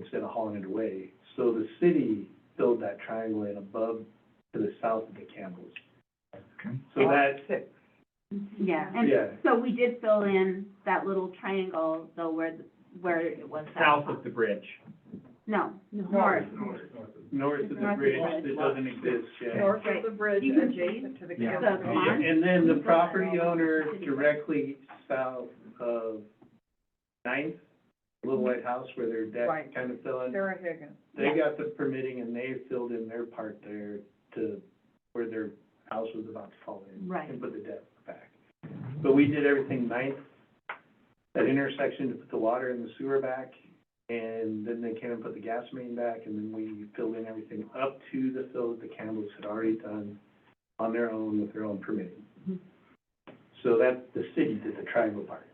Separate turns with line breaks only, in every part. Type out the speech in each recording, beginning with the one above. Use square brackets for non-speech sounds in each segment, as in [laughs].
instead of hauling it away. So the city filled that triangle in above to the south of the Campbells.
Okay.
So that,
Yeah,
Yeah.
and so we did fill in that little triangle though where, the- where it was.
south of the bridge.
No, north.
north of the bridge that doesn't exist yet.
North of the bridge,
You can
adjacent to the
Yeah.
So
campus.
come on.
And then the property owner directly south of Ninth, Little White House where their deck
Right.
kind of fell in.
Sarah Higgins.
They got the permitting and they filled in their part there to where their house was about to fall in.
Right.
And put the deck back. But we did everything ninth, that intersection to put the water and the sewer back. And then they came and put the gas main back and then we filled in everything up to the fill that the Campbells had already done on their own with their own permitting. So that, the city did the triangle part.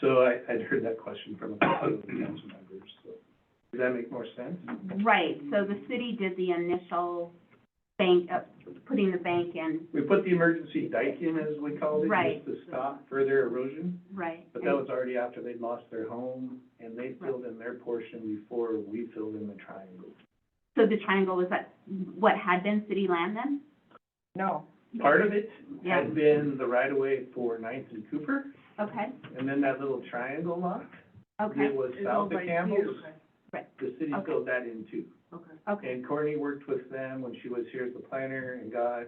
So I, I'd heard that question from a couple of the council members, so. Does that make more sense?
Right, so the city did the initial bank, uh, putting the bank in,
We put the emergency dike in, as we called it,
Right.
just to stop further erosion,
right?
but that was already after they'd lost their home, and they filled in their portion before we filled in the triangle.
So the triangle was that, what had been city land then?
No,
Part of it
Yeah,
had been the right-of-way for Ninth and Cooper,
okay,
and then that little triangle lot that
okay,
was
it's
south
owned
of
by
Campbell's,
Hughes.
the city
Okay.
filled that in too.
okay,
And Courtney worked with them when she was here as the planner and got,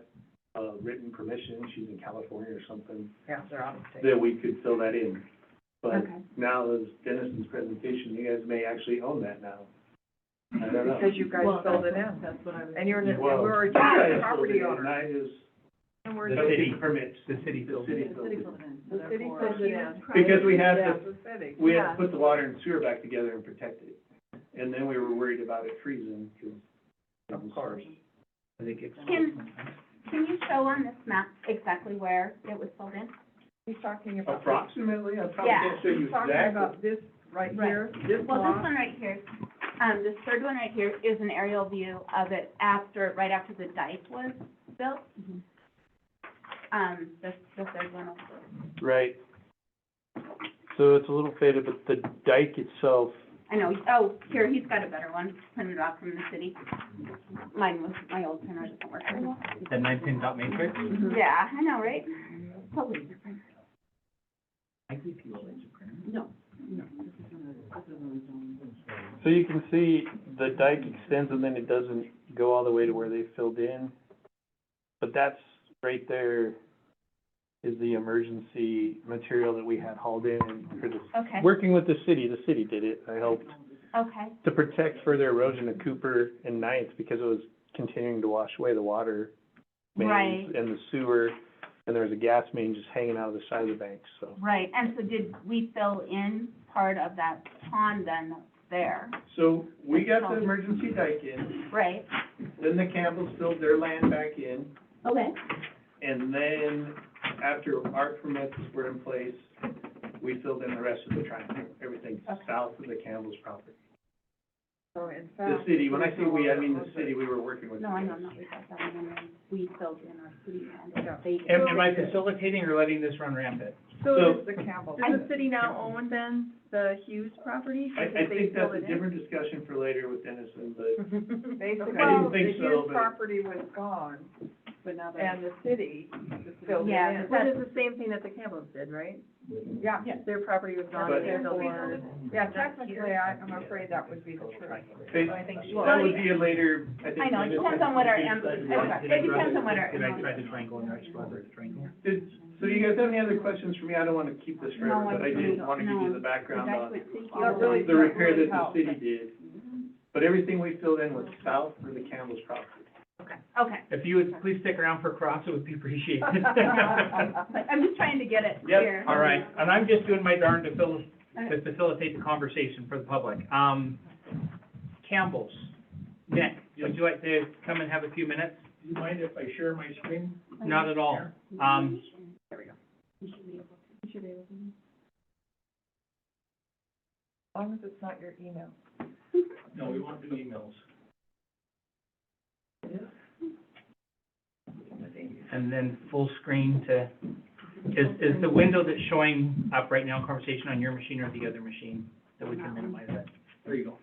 uh, written permission, she's in California or something,
yeah, they're out of state.
that we could fill that in. But
okay.
now, as Dennis's presentation, you guys may actually own that now. I don't know.
Because you guys
Well,
filled it in.
That's what I was.
And you're, and
Well,
we're a
you guys
joint property
filled it in,
owner.
and I just-
And we're
the
The
just-
city
city.
permits,
The city
the
building.
city
The city
building.
filled it in.
The city
Therefore,
filled it in.
Because we had
Yeah,
to-
the city.
We had
Yeah.
to put the water and sewer back together and protect it, and then we were worried about it freezing, because.
Of course.
I think it's.
Can- Can you show on this map exactly where it was filled in?
He's talking about.
Approximately, I probably
Yeah.
can't show you
He's talking
exactly.
about this right
Right.
here, this
Well, this
lot.
one right here, um, this third one right here is an aerial view of it after, right after the dike was built.
Mhm.
Um, this, the third one also.
Right. So it's a little faded, but the dike itself,
I know, oh, here, he's got a better one, printed off from the city. Mine was, my old printer doesn't work very well.
The nine pin dot matrix?
Mm-hmm.
Yeah, I know, right? Mm-hmm. Totally different.
I give you a laser printer.
No, no, this is on a, this is on its own.
so you can see the dike extends and then it doesn't go all the way to where they filled in. But that's, right there is the emergency material that we had hauled in for the,
Okay,
working with the city, the city did it, I helped.
okay,
To protect further erosion of Cooper and Ninth because it was continuing to wash away the water mains
Right.
and the sewer. And there was a gas main just hanging out of the side of the bank, so.
right, and so did we fill in part of that pond then that's there,
So, we got the emergency dike in,
right?
then the Campbells filled their land back in,
Okay.
And then, after our permits were in place, we filled in the rest of the triangle, everything
Okay.
south of the Campbell's property.
So in
The
fact,
city, when I say we, I mean the
there's no-
city, we were working with.
No, I know, not without that, and then we filled in our city land, they.
Am, am I facilitating or letting this run rampant?
So
So-
does the Campbell.
I-
Does the city now own then the Hughes property?
I, I
Because they
think that's
filled
a
it in?
different discussion for later with Dennison, but
Basically,
I didn't
the
think so,
Hughes
but-
property was gone,
But now they're.
and the city filled it
Yeah,
in.
That is the same thing that the Campbells did, right?
Yeah,
Their property was gone,
But-
they filled it in.
yeah, technically, I, I'm afraid that would be the [laughs] truth.
they-
I think she-
that would be a later, I think.
I know, it
maybe-
depends on what our, em-
Did
it
I
depends on what our.
Did I try to triangle and actually rather triangle?
Did, so do you guys have any other questions for me? I don't wanna keep this forever,
No, I
but I did
don't.
wanna give you
No.
the background
That's
on
what city
Not really
the repair that the
help.
city did. But everything we filled in was south of the Campbell's property.
Okay,
If you would please stick around for cross, it would be appreciated.
[laughs]
[laughs]
but I'm just trying to get it clear.
Yep, all right, and I'm just doing my darn to fill, to facilitate the conversation for the public. Um, Campbell's, Nick, would you like to come and have a few minutes?
Do you mind if I share my screen?
Not at all. Um,
As long as it's not your email.
No, we want to do emails.
and then full screen to, is, is the window that's showing up right now, conversation on your machine or the other machine? That we can minimize that. There you go.